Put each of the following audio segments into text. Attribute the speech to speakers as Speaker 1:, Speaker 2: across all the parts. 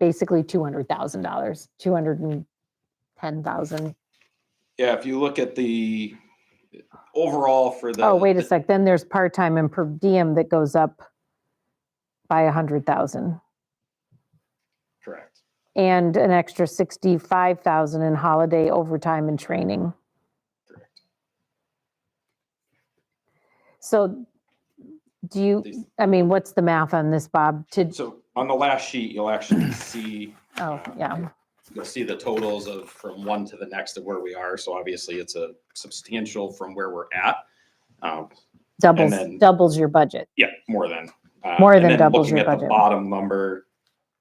Speaker 1: basically two hundred thousand dollars, two hundred and ten thousand.
Speaker 2: Yeah, if you look at the overall for the.
Speaker 1: Oh, wait a sec, then there's part-time and per diem that goes up by a hundred thousand
Speaker 2: Correct.
Speaker 1: and an extra sixty-five thousand in holiday overtime and training.
Speaker 2: Correct.
Speaker 1: So do you,
Speaker 2: These-
Speaker 1: I mean, what's the math on this, Bob? To,
Speaker 2: So on the last sheet, you'll actually see,
Speaker 1: oh, yeah,
Speaker 2: you'll see the totals of from one to the next of where we are. So obviously it's a substantial from where we're at. Um,
Speaker 1: doubles,
Speaker 2: then-
Speaker 1: doubles your budget.
Speaker 2: Yeah, more than. uh,
Speaker 1: More
Speaker 2: and
Speaker 1: than
Speaker 2: then
Speaker 1: doubles
Speaker 2: looking
Speaker 1: your
Speaker 2: at the
Speaker 1: budget.
Speaker 2: Bottom number,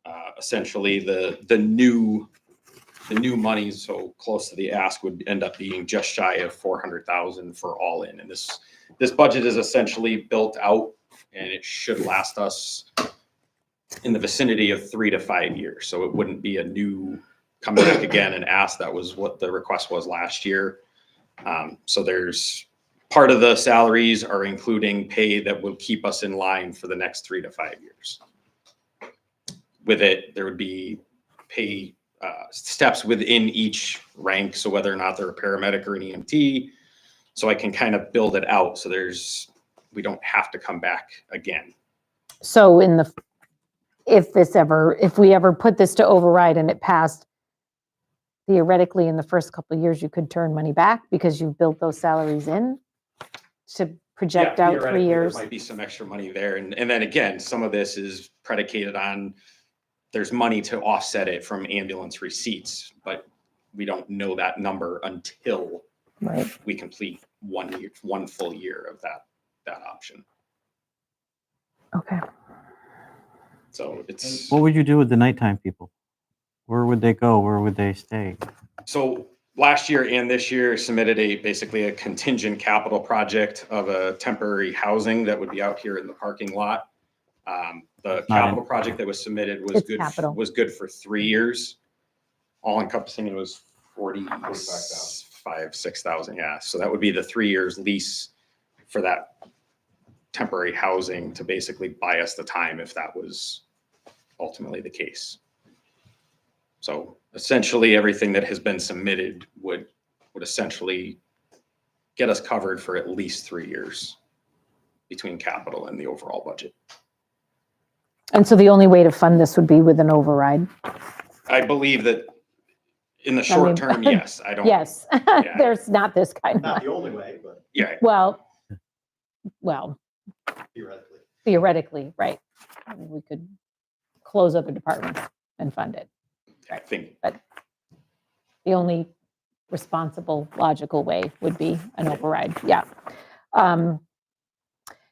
Speaker 2: uh, essentially the, the new, the new money so close to the ask would end up being just shy of four hundred thousand for all in. And this, this budget is essentially built out and it should last us in the vicinity of three to five years. So it wouldn't be a new come back again and ask. That was what the request was last year. Um, so there's part of the salaries are including pay that will keep us in line for the next three to five years. With it, there would be pay uh, steps within each rank, so whether or not they're a paramedic or an EMT. So I can kind of build it out, so there's, we don't have to come back again.
Speaker 1: So in the, if this ever, if we ever put this to override and it passed, theoretically, in the first couple of years, you could turn money back because you built those salaries in to project
Speaker 2: Yeah,
Speaker 1: out
Speaker 2: theoretically,
Speaker 1: three
Speaker 2: there
Speaker 1: years.
Speaker 2: Might be some extra money there. And, and then again, some of this is predicated on, there's money to offset it from ambulance receipts, but we don't know that number until
Speaker 1: Right.
Speaker 2: we complete one year, one full year of that, that option.
Speaker 1: Okay.
Speaker 2: So it's,
Speaker 3: What would you do with the nighttime people? Where would they go? Where would they stay?
Speaker 2: so last year and this year submitted a, basically a contingent capital project of a temporary housing that would be out here in the parking lot. Um, the
Speaker 3: Not in-
Speaker 2: capital project that was submitted was
Speaker 1: It's
Speaker 2: good,
Speaker 1: capital.
Speaker 2: was good for three years. All encompassing, it was forty, five, six thousand, yeah. So that would be the three years lease for that temporary housing to basically buy us the time if that was ultimately the case. So essentially, everything that has been submitted would, would essentially get us covered for at least three years between capital and the overall budget.
Speaker 1: And so the only way to fund this would be with an override.
Speaker 2: I believe that in the short
Speaker 1: mean-
Speaker 2: term, yes, I don't.
Speaker 1: Yes,
Speaker 2: Yeah.
Speaker 1: there's not this kind of,
Speaker 4: Not
Speaker 1: money.
Speaker 4: the only way, but
Speaker 2: Yeah,
Speaker 1: well, well,
Speaker 4: theoretically.
Speaker 1: theoretically, right. We could close other departments and fund it.
Speaker 2: I think
Speaker 1: the only responsible, logical way would be an override, yeah. Um,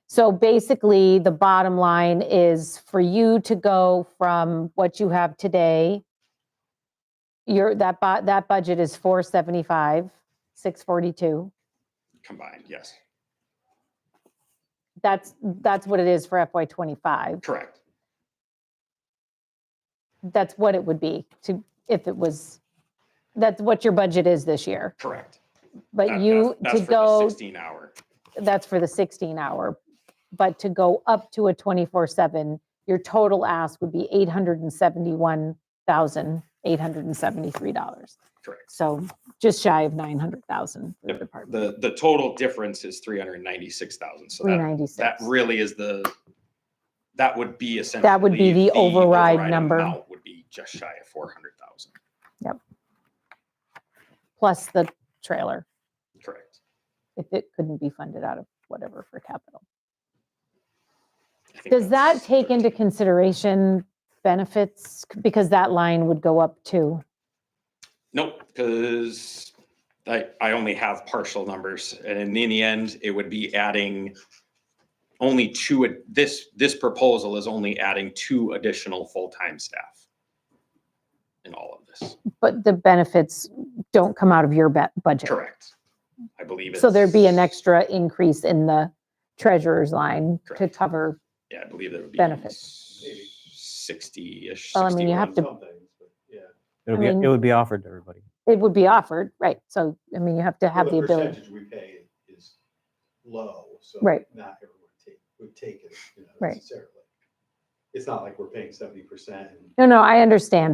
Speaker 1: So basically, the bottom line is for you to go from what you have today, your, that, bu- that budget is 475, 642.
Speaker 2: combined, yes,
Speaker 1: That's, that's what it is for FY '25.
Speaker 2: correct.
Speaker 1: That's what it would be to, if it was, that's what your budget is this year.
Speaker 2: Correct.
Speaker 1: But
Speaker 2: That-
Speaker 1: you,
Speaker 2: that's-
Speaker 1: to
Speaker 2: that's for the
Speaker 1: go
Speaker 2: Sixteen hour,
Speaker 1: that's for the 16 hour. But to go up to a 24 seven, your total ask would be $871,873.
Speaker 2: correct.
Speaker 1: So just shy of 900,000 for the
Speaker 2: Yep.
Speaker 1: department,
Speaker 2: The, the total difference is three hundred and ninety-six thousand, so uh, that, that
Speaker 1: 396.
Speaker 2: really is the, that would be essentially.
Speaker 1: would be the override number.
Speaker 2: amount Would be just shy of four hundred thousand,
Speaker 1: Plus the trailer,
Speaker 2: correct.
Speaker 1: if it couldn't be funded out of whatever for capital.
Speaker 2: I think
Speaker 1: Does that
Speaker 2: that's
Speaker 1: take into
Speaker 2: 13.
Speaker 1: consideration benefits? Because that line would go up too.
Speaker 2: Nope, because I, I only have partial numbers, and in the end, it would be adding only two, ad- this, this proposal is only adding two additional full-time staff in all of this.
Speaker 1: But the benefits don't come out of your ba- budget.
Speaker 2: Correct. I believe it's.
Speaker 1: So there'd be an extra increase in the treasurer's line to
Speaker 2: Correct.
Speaker 1: cover,
Speaker 2: Yeah, I believe there would be.
Speaker 1: benefits.
Speaker 4: Maybe.
Speaker 2: Sixty-ish.
Speaker 1: Well, I mean, you have
Speaker 2: 61.
Speaker 1: to-
Speaker 4: Some things, but yeah.
Speaker 1: I
Speaker 3: It would be,
Speaker 1: mean-
Speaker 3: it would be offered to everybody.
Speaker 1: it would be offered, right? So, I mean, you have to have
Speaker 4: Well,
Speaker 1: the ability.
Speaker 4: percentage we pay is low, so.
Speaker 1: Right.
Speaker 4: Not everyone take, would take it, you know,
Speaker 1: Right.
Speaker 4: necessarily. it's not like we're paying seventy percent and
Speaker 1: No, no, I understand.